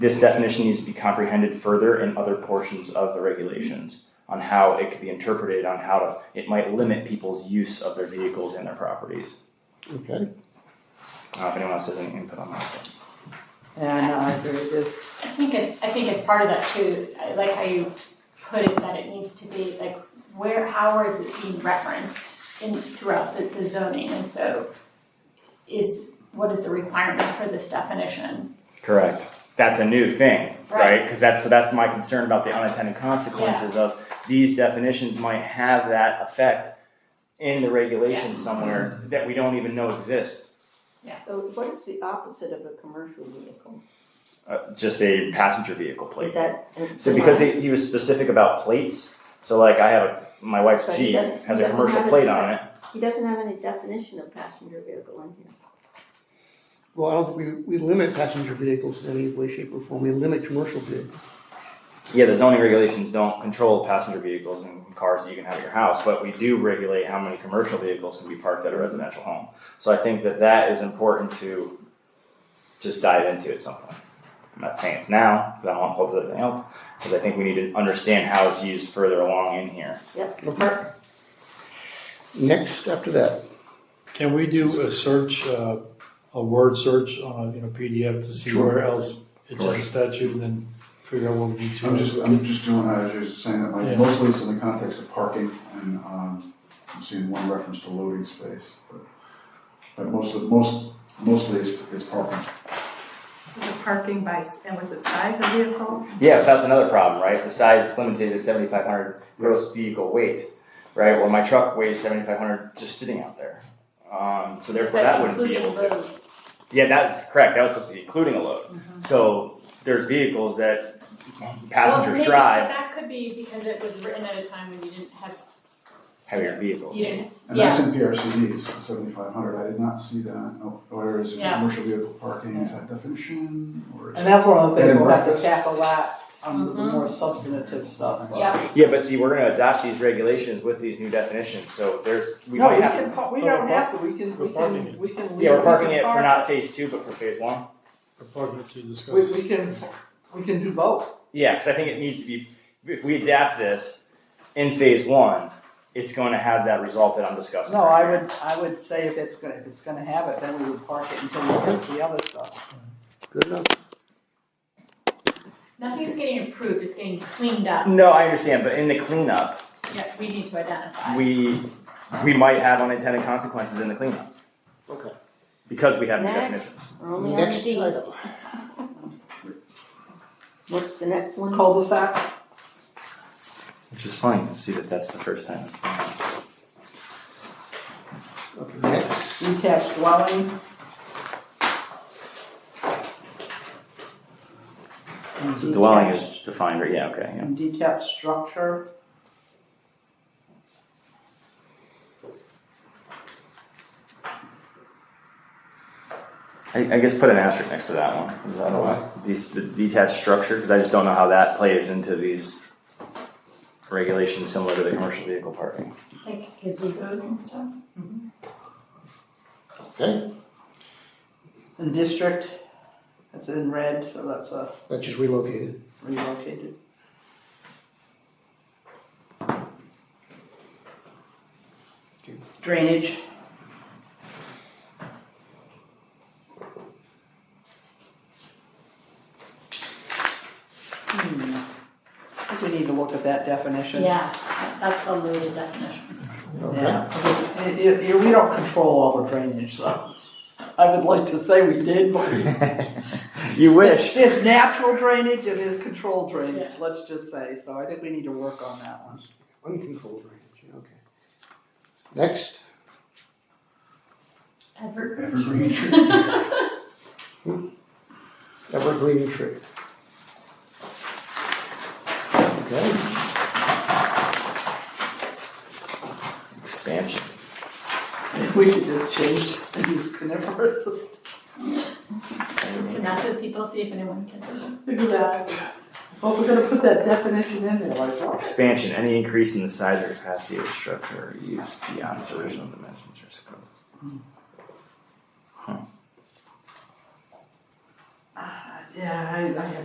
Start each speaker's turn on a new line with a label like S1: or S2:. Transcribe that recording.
S1: This definition needs to be comprehended further in other portions of the regulations on how it could be interpreted, on how to, it might limit people's use of their vehicles and their properties.
S2: Okay,
S1: I don't know if anyone else has any input on that.
S3: And I agree with
S4: I think it's, I think it's part of that too, I like how you put it, that it needs to be, like, where, how is it being referenced in, throughout the, the zoning, and so is, what is the requirement for this definition?
S1: Correct. That's a new thing, right?
S4: Right.
S1: Because that's, so that's my concern about the unintended consequences of these definitions might have that effect in the regulations somewhere that we don't even know exists.
S5: So what is the opposite of a commercial vehicle?
S1: Uh, just a passenger vehicle plate.
S5: Is that?
S1: So because he, he was specific about plates, so like I have a, my wife's
S5: But
S1: Jeep
S5: he doesn't-
S1: has
S5: he
S1: a
S5: doesn't
S1: commercial
S5: have it.
S1: plate on it.
S5: He doesn't have any definition of passenger vehicle in here.
S2: well, I don't think we, we limit passenger vehicles in any way, shape, or form, we limit commercial vehicles.
S1: Yeah, the zoning regulations don't control passenger vehicles and cars that you can have at your house, but we do regulate how many commercial vehicles can be parked at a residential home. So I think that that is important to just dive into at some point. I'm not saying it's now, because I don't want to hold everything up, because I think we need to understand how it's used further along in here.
S2: Okay. Next, after that,
S6: Can we do a search, uh, a word search on a, you know, PDF to see
S7: Sure.
S6: where else it's in the
S7: Sure.
S6: statute and then figure out what we need to?
S7: I'm just, I'm just doing that, as you're saying that, like,
S6: Yeah.
S7: mostly it's in the context of parking, and, um, I'm seeing one reference to loading space, but, but most of, most, mostly it's, it's parking.
S8: Was it parking by, and was it size of vehicle?
S1: Yeah, so that's another problem, right? The size is limited to seventy-five hundred gross vehicle weight, right? Well, my truck weighs seventy-five hundred just sitting out there. Um, so therefore, that wouldn't be able to. Yeah, that's correct. That was supposed to be including a load.
S3: Mm-hmm.
S1: So there's vehicles that
S4: Well,
S1: passengers
S4: maybe
S1: drive
S4: That could be because it was written at a time when you didn't have,
S1: heavier vehicles.
S4: you didn't,
S7: And that's in PRCDs, seventy-five hundred, I did not see that, Oh, or is it
S4: Yeah.
S7: commercial vehicle parking, is that definition, or is
S3: And that's one of the
S7: Bed
S3: things
S7: and
S3: we'll have to
S7: breakfast.
S3: tap a lot on the
S4: Mhm.
S3: more substantive stuff. but-
S4: yeah,
S1: Yeah, but see, we're gonna adopt these regulations with these new definitions, so there's, we
S3: No, we
S1: might have
S3: can,
S1: to.
S3: par- we
S6: Oh, we're
S3: don't have to, we can,
S6: we're
S3: we
S6: parking
S3: can,
S6: it.
S3: we can. leave-
S1: Yeah,
S3: we
S1: we're parking
S3: can
S1: it for
S3: park-
S1: not phase two, but for phase one.
S6: We're parking to discuss.
S3: We, we can, we can do both.
S1: Yeah, because I think it needs to be, if we adapt this in phase one, it's going to have that result that I'm discussing.
S3: No,
S1: right
S3: I
S1: here.
S3: would, I would say if it's gonna, if it's gonna have it, then we would park it until we fix the other stuff.
S2: good enough.
S4: nothing's getting improved, it's getting cleaned up,
S1: No, I understand, but in the cleanup,
S4: yes, we need to identify.
S1: we, we might have unintended consequences in the cleanup.
S2: Okay.
S1: Because we have the
S5: Next.
S1: definition.
S5: We're only on
S2: Next
S5: these.
S2: item.
S5: What's the next one?
S3: Cul-de-sac,
S1: Which is funny to see that that's the first time.
S2: Okay, next,
S3: detached dwelling.
S1: So dwelling is defined, right? Yeah, okay, yeah.
S3: And detached structure.
S1: I, I guess put an asterisk next to that one. 'cause I don't know. These, the detached structure, because I just don't know how that plays into these regulations similar to the commercial vehicle parking.
S4: Like gazebo's and stuff.
S2: okay,
S3: And district, that's in red, so that's a
S2: that's just relocated.
S3: relocated. Drainage, hmm, I guess we need to look at that definition.
S4: Yeah, that's a loaded definition.
S2: Okay,
S3: Yeah, because it- it- we don't control all the drainage, so I would like to say we did, but we
S1: You wish.
S3: There's natural drainage and there's controlled drainage, let's just say, so I think we need to work on that one.
S2: uncontrolled range, yeah, okay. Next,
S4: Evergreen.
S7: Evergreen tree.
S2: evergreen tree. Okay,
S1: Expansion.
S3: We should just change and use conifers.
S4: Just enough that people see if anyone can.
S3: Exactly. Well, we're gonna put that definition in there, like, what?
S1: Expansion, any increase in the size or capacity of a structure or use beyond its original dimensions or scope.
S3: Ah, yeah, I, I have